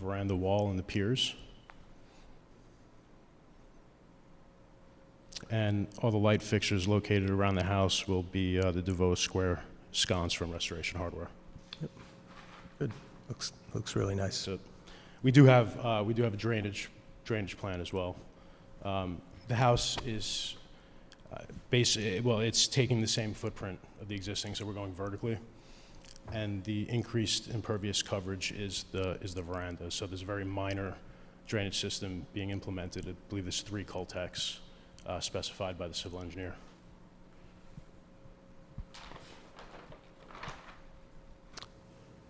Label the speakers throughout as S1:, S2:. S1: veranda wall and the piers. And all the light fixtures located around the house will be uh, the DeVoe Square sconce from Restoration Hardware.
S2: Looks, looks really nice.
S1: So we do have, uh, we do have a drainage, drainage plan as well. Um, The house is basically, well, it's taking the same footprint of the existing, so we're going vertically. And the increased impervious coverage is the, is the veranda. So there's a very minor drainage system being implemented. I believe there's three cul-de-sacs uh, specified by the civil engineer.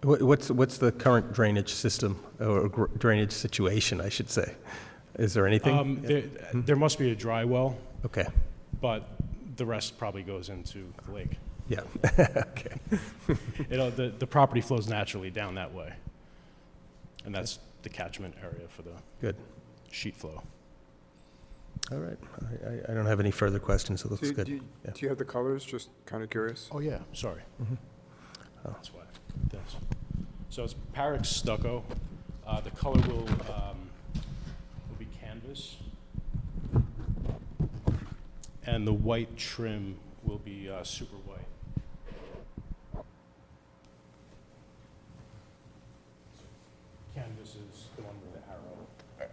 S2: What- What's, what's the current drainage system, or gr- drainage situation, I should say? Is there
S1: Um,
S2: anything?
S1: There there must be a dry well,
S2: Okay,
S1: but the rest probably goes into the lake.
S2: yeah, okay.
S1: you know, the, the property flows naturally down that way. And that's the catchment area for the
S2: Good.
S1: sheet flow.
S2: All right, I- I, I don't have any further questions, it looks
S3: Do- Do
S2: good.
S3: you-
S2: yeah.
S3: do you have the colors? Just kind of curious.
S1: Oh, yeah. Sorry.
S2: Mhm. Oh.
S1: That's why. This. So it's Parex stucco. Uh, the color will, um, will be canvas. And the white trim will be uh, super white. Canvas is the one with the arrow.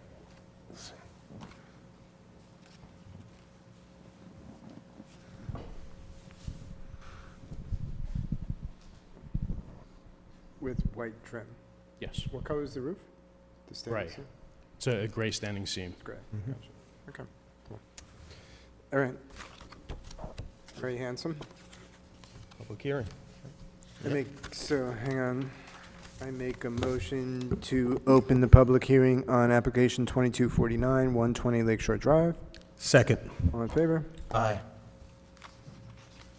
S3: With white trim.
S1: Yes.
S3: What color is the roof? The stainless
S1: Right.
S3: steel?
S1: It's a gray standing seam.
S3: It's gray.
S2: Mhm.
S3: Gotcha. Okay, cool. All right. Very handsome.
S2: Public hearing.
S3: I make, so, hang on. I make a motion to open the public hearing on application 2249, 120 Lakeshore Drive.
S2: Second.
S3: All in favor?
S2: Aye.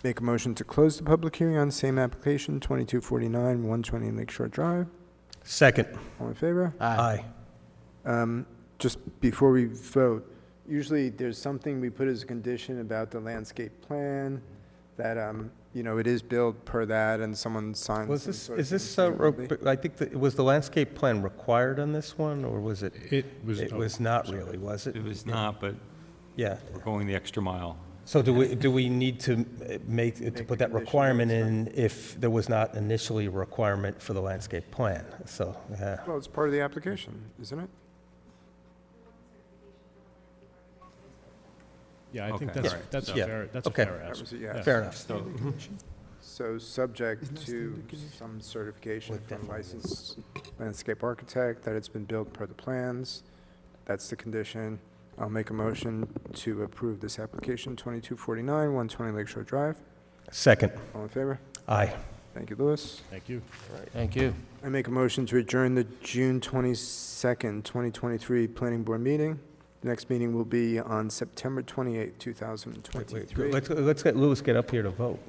S3: Make a motion to close the public hearing on same application, 2249, 120 Lakeshore Drive.
S2: Second.
S3: All in favor?
S2: Aye.
S3: Um, Just before we vote, usually there's something we put as a condition about the landscape plan, that, um, you know, it is built per that, and someone signs
S2: Was
S3: some
S2: this,
S3: sort of
S2: is this, uh,
S3: thing.
S2: ro- I think, that- was the landscape plan required on this one, or was it?
S1: It was,
S2: It
S1: oh,
S2: was not really, was it?
S4: It was not, but
S2: Yeah.
S4: we're going the extra mile.
S2: So do we, do we need to uh, make, to
S3: the
S2: put that
S3: condition that
S2: requirement
S3: it's
S2: in if there was not initially a requirement for the landscape plan? So, yeah.
S3: Well, it's part of the application, isn't it?
S1: yeah, I think
S4: Okay.
S1: that's,
S4: Alright,
S1: that's a
S2: Yeah.
S1: fair, that's a
S2: Okay.
S1: fair
S3: That
S1: ask.
S3: was, a yeah.
S2: fair enough.
S4: So
S3: So, subject to some certification
S2: Look,
S3: from
S2: definitely.
S3: licensed landscape architect that it's been built per the plans. That's the condition. I'll make a motion to approve this application, 2249, 120 Lakeshore Drive.
S2: Second.
S3: All in favor?
S2: Aye.
S3: Thank you, Louis.
S1: Thank you.
S5: Thank you.
S3: I make a motion to adjourn the June 22nd, 2023 Planning Board meeting. The next meeting will be on September 28th,
S2: Wait, wait,
S3: 2023.
S2: Let's, let's get Louis get up here to vote.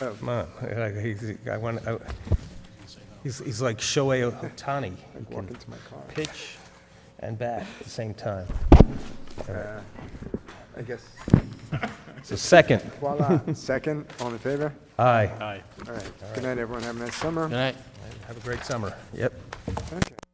S3: Oh.
S2: Come on. I- I- he's- I want, I- he's, he's like Shohei Ohtani. He
S3: Walk
S2: can
S3: into my car.
S2: pitch and bat at the same time. All right.
S3: Uh, I guess,
S2: So second,
S3: voila, second, all in favor?
S2: aye.
S1: Aye.
S3: All right, good night, everyone, have a nice summer.
S5: Good night.
S2: Have a great summer. Yep.
S3: Okay.